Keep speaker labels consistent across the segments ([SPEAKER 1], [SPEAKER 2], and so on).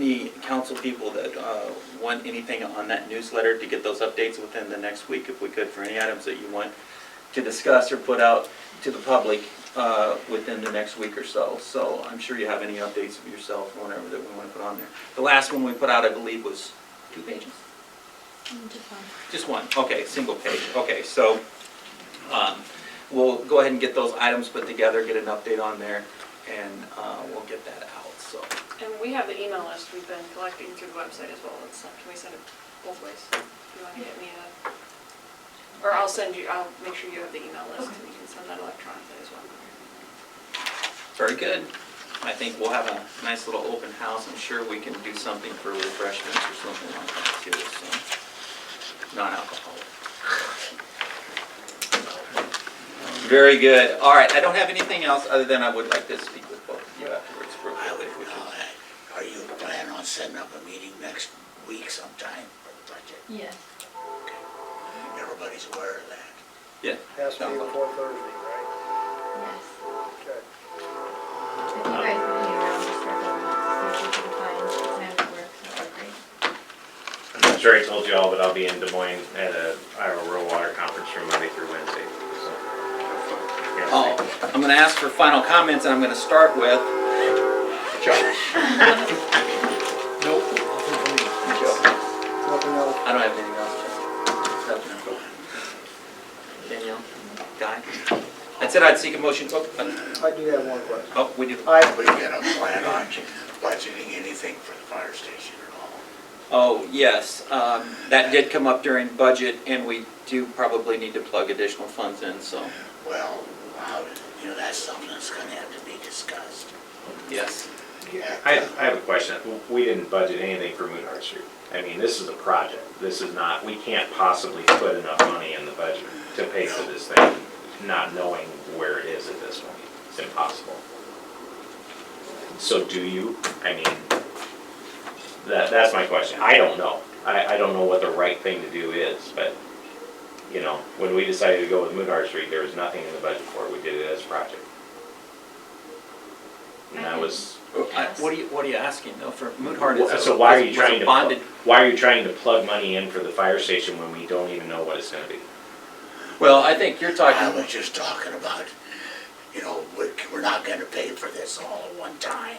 [SPEAKER 1] any council people that uh, want anything on that newsletter to get those updates within the next week, if we could, for any items that you want to discuss or put out to the public uh, within the next week or so. So I'm sure you have any updates of yourself, whatever that we want to put on there. The last one we put out, I believe, was two pages? Just one, okay, single page, okay, so, um, we'll go ahead and get those items put together, get an update on there, and, uh, we'll get that out, so.
[SPEAKER 2] And we have the email list we've been collecting through the website as well. It's, can we send it both ways? If you want to get me a, or I'll send you, I'll make sure you have the email list and you can send that electronically as well.
[SPEAKER 1] Very good. I think we'll have a nice little open house. I'm sure we can do something for refreshments or something like that too, so. Non-alcoholic. Very good. All right, I don't have anything else other than I would like to speak with both of you afterwards, real quickly, if we can.
[SPEAKER 3] Are you planning on setting up a meeting next week sometime for the budget?
[SPEAKER 4] Yes.
[SPEAKER 3] Everybody's aware of that.
[SPEAKER 1] Yeah.
[SPEAKER 5] Has to be before Thursday, right?
[SPEAKER 4] Yes.
[SPEAKER 5] Okay.
[SPEAKER 4] If you guys want me around, just start looking up, see if you can find time that works, that would be great.
[SPEAKER 6] I'm not sure I told you all, but I'll be in Des Moines at a Iowa Rural Water Conference from Monday through Wednesday. so. Yeah.
[SPEAKER 1] Oh, I'm gonna ask for final comments and I'm gonna start with Josh. Nope. Joe.
[SPEAKER 5] Nothing else.
[SPEAKER 1] I don't have anything else, Joe. Danielle? Guy? That's it, I'd seek a motion, oh, uh,
[SPEAKER 5] I do have one question.
[SPEAKER 1] oh, we do,
[SPEAKER 5] I,
[SPEAKER 3] But you gonna plan on budgeting anything for the fire station at all?
[SPEAKER 1] oh, yes, um, that did come up during budget and we do probably need to plug additional funds in, so,
[SPEAKER 3] Well, how, you know, that's something that's gonna have to be discussed.
[SPEAKER 1] yes.
[SPEAKER 6] I, I have a question. We didn't budget anything for Moonheart Street. I mean, this is a project. This is not, we can't possibly put enough money in the budget to pay for this thing, not knowing where it is at this point. It's impossible. So do you, I mean, that, that's my question. I don't know. I, I don't know what the right thing to do is, but, you know, when we decided to go with Moonheart Street, there was nothing in the budget for it. We did it as a project. And that was.
[SPEAKER 1] I- What are you, what are you asking though, for Moonheart?
[SPEAKER 6] Well,
[SPEAKER 1] is a-
[SPEAKER 6] So why are you
[SPEAKER 1] was a
[SPEAKER 6] trying to, pl-
[SPEAKER 1] Bonded,
[SPEAKER 6] why are you trying to plug money in for the fire station when we don't even know what it's gonna be?
[SPEAKER 1] well, I think you're
[SPEAKER 3] I
[SPEAKER 1] talking,
[SPEAKER 3] was just talking about, you know, we're, we're not gonna pay for this all at one time.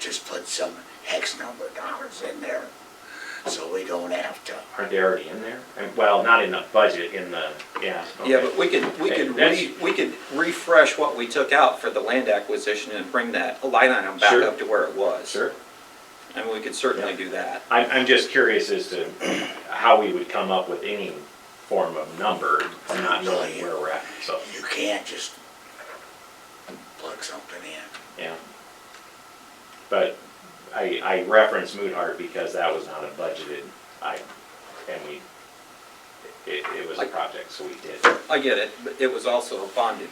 [SPEAKER 3] Just put some X number of dollars in there, so we don't have to.
[SPEAKER 6] Aren't they already in there? And- Well, not in the budget, in the, yeah.
[SPEAKER 1] yeah,
[SPEAKER 6] okay.
[SPEAKER 1] but we could, we could,
[SPEAKER 6] That's-
[SPEAKER 1] re- we could refresh what we took out for the land acquisition and bring that line item back
[SPEAKER 6] Sure.
[SPEAKER 1] up to where it was.
[SPEAKER 6] Sure.
[SPEAKER 1] I mean, we could certainly
[SPEAKER 6] Yeah.
[SPEAKER 1] do that.
[SPEAKER 6] I'm, I'm just curious as to how we would come up with any form of number, not knowing where we're at, so,
[SPEAKER 3] You can't just plug something in.
[SPEAKER 6] yeah. But I, I referenced Moonheart because that was not a budgeted item, and we, it, it was a project, so we did.
[SPEAKER 1] I get it, but it was also a bonded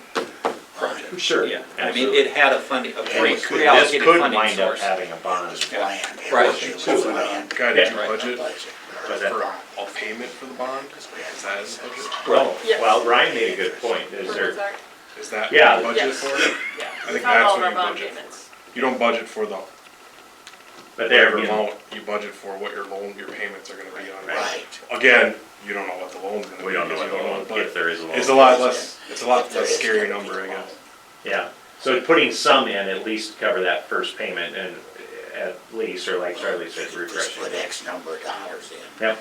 [SPEAKER 1] project.
[SPEAKER 6] Sure,
[SPEAKER 1] Yeah, I mean,
[SPEAKER 6] absolutely.
[SPEAKER 1] it had a funding, a
[SPEAKER 3] Yeah,
[SPEAKER 1] free
[SPEAKER 3] we could-
[SPEAKER 6] This
[SPEAKER 1] reallocated
[SPEAKER 6] could
[SPEAKER 1] funding
[SPEAKER 6] wind up
[SPEAKER 1] source.
[SPEAKER 6] having
[SPEAKER 3] It
[SPEAKER 6] a
[SPEAKER 3] was
[SPEAKER 6] bond.
[SPEAKER 3] planned. It
[SPEAKER 1] Right.
[SPEAKER 3] was- it was planned.
[SPEAKER 7] Guy, did you
[SPEAKER 1] Right.
[SPEAKER 7] budget
[SPEAKER 3] Budget.
[SPEAKER 6] Was that-
[SPEAKER 7] for a payment for the bond? Is that in the budget?
[SPEAKER 6] Well,
[SPEAKER 2] Yes.
[SPEAKER 6] well, Ryan made a good point. Is
[SPEAKER 2] Where was
[SPEAKER 6] there,
[SPEAKER 2] that?
[SPEAKER 7] Is that
[SPEAKER 6] Yeah.
[SPEAKER 7] budget
[SPEAKER 2] Yes.
[SPEAKER 7] for it?
[SPEAKER 2] Yeah.
[SPEAKER 7] I think
[SPEAKER 2] Not all
[SPEAKER 7] that's
[SPEAKER 2] of
[SPEAKER 7] what
[SPEAKER 2] our
[SPEAKER 7] you
[SPEAKER 2] bond
[SPEAKER 7] budget for.
[SPEAKER 2] payments.
[SPEAKER 7] You don't budget for the
[SPEAKER 6] but there,
[SPEAKER 7] whatever
[SPEAKER 6] you know,
[SPEAKER 7] amount, you budget for what your loan, your payments are gonna be on. it.
[SPEAKER 3] Right.
[SPEAKER 7] Again, you don't know what the loan's gonna be.
[SPEAKER 6] we don't know
[SPEAKER 7] because
[SPEAKER 6] what
[SPEAKER 7] you
[SPEAKER 6] the
[SPEAKER 7] what
[SPEAKER 6] loan, if
[SPEAKER 7] the-
[SPEAKER 6] there is a loan.
[SPEAKER 7] It's a lot less, it's a lot less scary number, I guess.
[SPEAKER 6] Yeah, so putting some in at least cover that first payment and at least, or like Charlie said,
[SPEAKER 3] Just
[SPEAKER 6] refreshing.
[SPEAKER 3] put X number of dollars in.
[SPEAKER 6] Yep,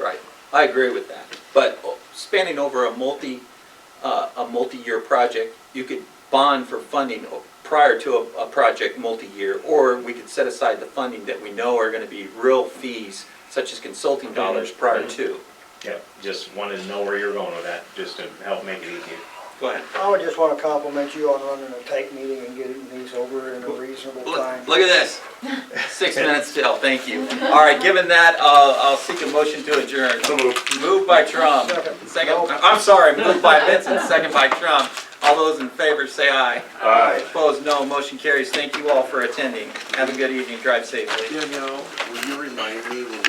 [SPEAKER 1] Right, I agree with that. But uh, spanning over a multi, uh, a multi-year project, you could bond for funding o- prior to a, a project multi-year, or we could set aside the funding that we know are gonna be real fees, such as consulting dollars prior to.
[SPEAKER 6] yep, just wanted to know where you're going with that, just to help make it easier.
[SPEAKER 1] Go ahead.
[SPEAKER 5] I would just want to compliment you on running a tight meeting and getting things over in a reasonable time.
[SPEAKER 1] Look look at this. Six minutes still, thank you. All right, given that, I'll, I'll seek a motion to adjourn. Moved by Trump,
[SPEAKER 5] Second.
[SPEAKER 1] um, second, I'm sorry, moved by Vincent, second by Trump. All those in favor say aye.
[SPEAKER 5] Aye.
[SPEAKER 1] Opposed, no. Motion carries. Thank you all for attending. Have a good evening. Drive safely.
[SPEAKER 8] Danielle, will you remind me when